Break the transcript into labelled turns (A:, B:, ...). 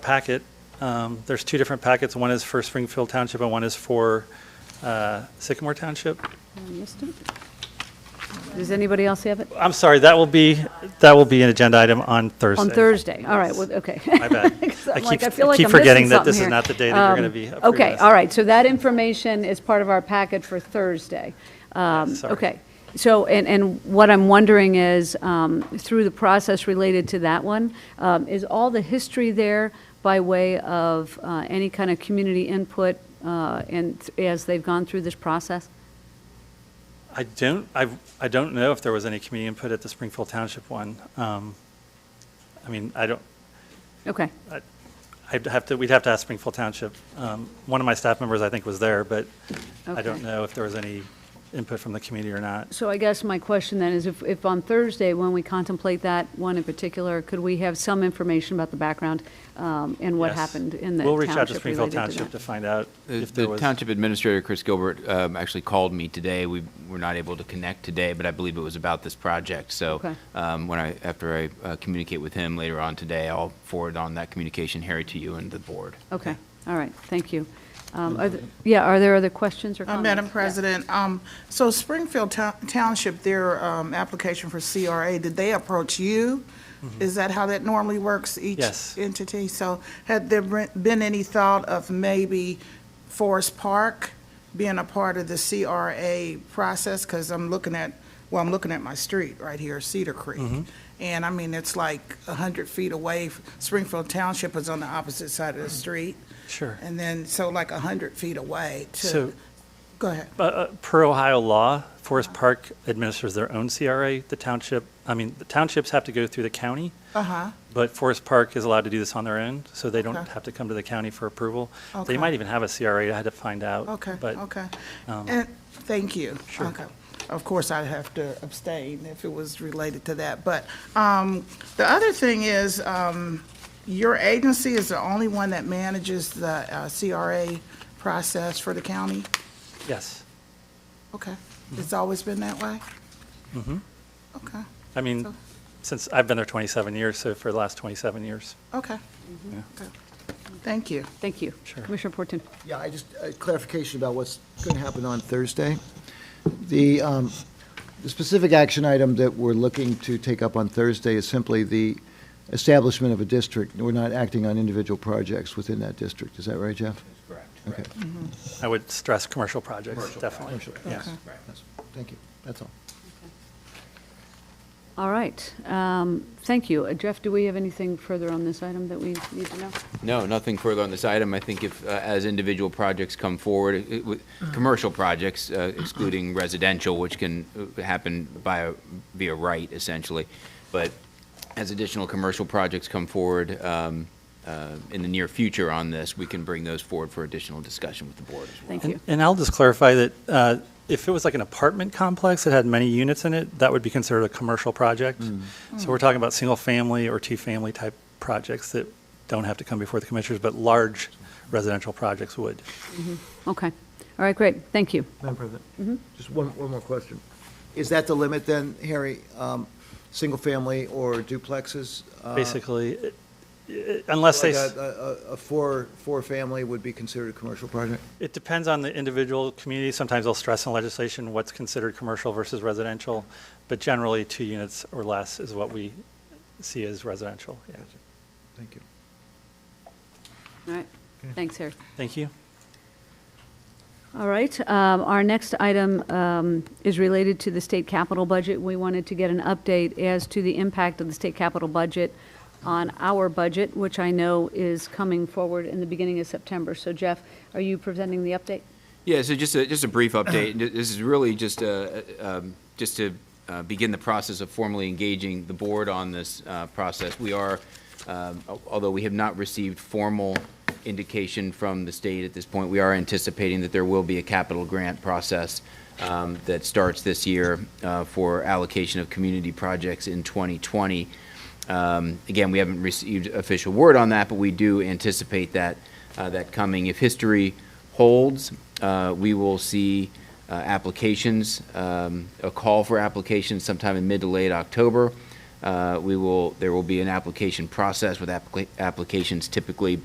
A: packet. Um, There's two different packets. One is for Springfield Township and one is for uh, Sycamore Township.
B: I missed it. Does anybody else have it?
A: I'm sorry, that will be, that will be an agenda item on Thursday.
B: On Thursday, all right, well, okay.
A: My bad. I
B: I'm like,
A: keep-
B: I feel like
A: keep
B: I'm
A: forgetting
B: missing
A: that this is
B: something here.
A: not the day that you're
B: Um,
A: gonna be up for
B: Okay,
A: this.
B: all right, so that information is part of our package for Thursday. Um,
A: sorry.
B: Okay, so, and, and what I'm wondering is, um, through the process related to that one, um, is all the history there by way of uh, any kind of community input uh, and th- as they've gone through this process?
A: I don't, I, I don't know if there was any community input at the Springfield Township one. Um, I mean, I don't,
B: Okay,
A: I'd have to, we'd have to ask Springfield Township. Um, One of my staff members, I think, was there, but I don't
B: Okay.
A: know if there was any input from the community or not.
B: so I guess my question then is, if, if on Thursday, when we contemplate that one in particular, could we have some information about the background um, and what
A: Yes.
B: happened in the
A: We'll reach out to
B: township
A: Springfield
B: related to
A: Township to
B: that?
A: find out
C: Uh, The-
A: if there
C: The
A: was.
C: township administrator, Chris Gilbert, um, actually called me today. We were not able to connect today, but I believe it was about this project.
B: Okay.
C: So um, when I, after I uh, communicate with him later on today, I'll forward on that communication, Harry, to you and the board.
A: Oh.
B: Okay, all right, thank you. Um, are
A: Mm-hmm.
B: the- Yeah, are there other questions or
D: Uh,
B: comments?
D: Madam
B: Yeah.
D: President, um, so Springfield Town- Township, their um, application for CRA, did they approach you? Is that how that normally works, each
A: Mm-hmm. Yes.
D: entity? So had there been been any thought of maybe Forest Park being a part of the CRA process? Because I'm looking at, well, I'm looking at my street right here, Cedar
A: Mm-hmm.
D: Creek. And I mean, it's like 100 feet away. Springfield Township is on the opposite side of the street.
A: Mm-hmm. Sure.
D: And then, so like 100 feet away
A: So-
D: to, go ahead.
A: Uh, uh, Per Ohio law, Forest Park administers their own CRA. The township, I mean, the townships have to go through the county,
D: Uh-huh.
A: but Forest Park is allowed to do this on their own, so they don't
D: Okay.
A: have to come to the county for approval. They
D: Okay.
A: might even have a CRA, I had to find out.
D: Okay,
A: but-
D: okay.
A: um,
D: And, thank you.
A: Sure.
D: Okay. Of course, I'd have to abstain if it was related to that. But um, the other thing is, um, your agency is the only one that manages the uh, CRA process for the county?
A: Yes.
D: Okay.
A: Mm-hmm.
D: It's always been that way? Mm-hmm. Okay,
A: I mean,
D: So-
A: since, I've been there 27 years, so for the last 27 years.
D: okay. Okay. Thank you.
B: Thank you.
A: Sure.
B: Commissioner Porton.
E: Yeah, I just, a clarification about what's going to happen on Thursday. The, um, the specific action item that we're looking to take up on Thursday is simply the establishment of a district. We're not acting on individual projects within that district. Is that right, Jeff? Okay,
A: I would stress commercial projects, definitely. Yes.
E: thank you. That's all.
B: All right, um, thank you. Uh, Jeff, do we have anything further on this item that we need to know?
C: No, nothing further on this item. I think if, uh, as individual projects come forward, it- it would- commercial projects uh, excluding residential, which can uh, happen by, via right essentially, but as additional commercial projects come forward um, uh, in the near future on this, we can bring those forward for additional discussion with the board as well.
B: Thank
A: And-
B: you.
A: And I'll just clarify that uh, if it was like an apartment complex that had many units in it, that would be considered a commercial project.
E: Mm.
A: So we're talking about single-family or two-family type projects that don't have to come before the commissioners, but large residential projects would.
B: Okay, all right, great, thank you.
E: Madam President?
A: Mm-hmm.
E: Just one, one more question. Is that the limit then, Harry? Um, single-family or duplexes? Uh,
A: Basically, it- it- unless they,
E: Like uh,
A: s-
E: a, a, a four, four-family would be considered a commercial project?
A: it depends on the individual community. Sometimes they'll stress in legislation what's considered commercial versus residential, but generally, two units or less is what we see as residential. Yeah.
E: Thank you.
B: All right, thanks, Harry.
A: Thank you.
B: All right, um, our next item um, is related to the state capital budget. We wanted to get an update as to the impact of the state capital budget on our budget, which I know is coming forward in the beginning of September. So Jeff, are you presenting the update?
C: Yeah, so just a, just a brief update. Th- This is really just uh um, just to uh, begin the process of formally engaging the board on this uh, process. We are, um, al- although we have not received formal indication from the state at this point, we are anticipating that there will be a capital grant process um, that starts this year uh, for allocation of community projects in 2020. Um, Again, we haven't received official word on that, but we do anticipate that, uh, that coming. If history holds, uh, we will see uh, applications, um, a call for applications sometime in mid to late October. uh, we will, there will be an application process with applica- applications typically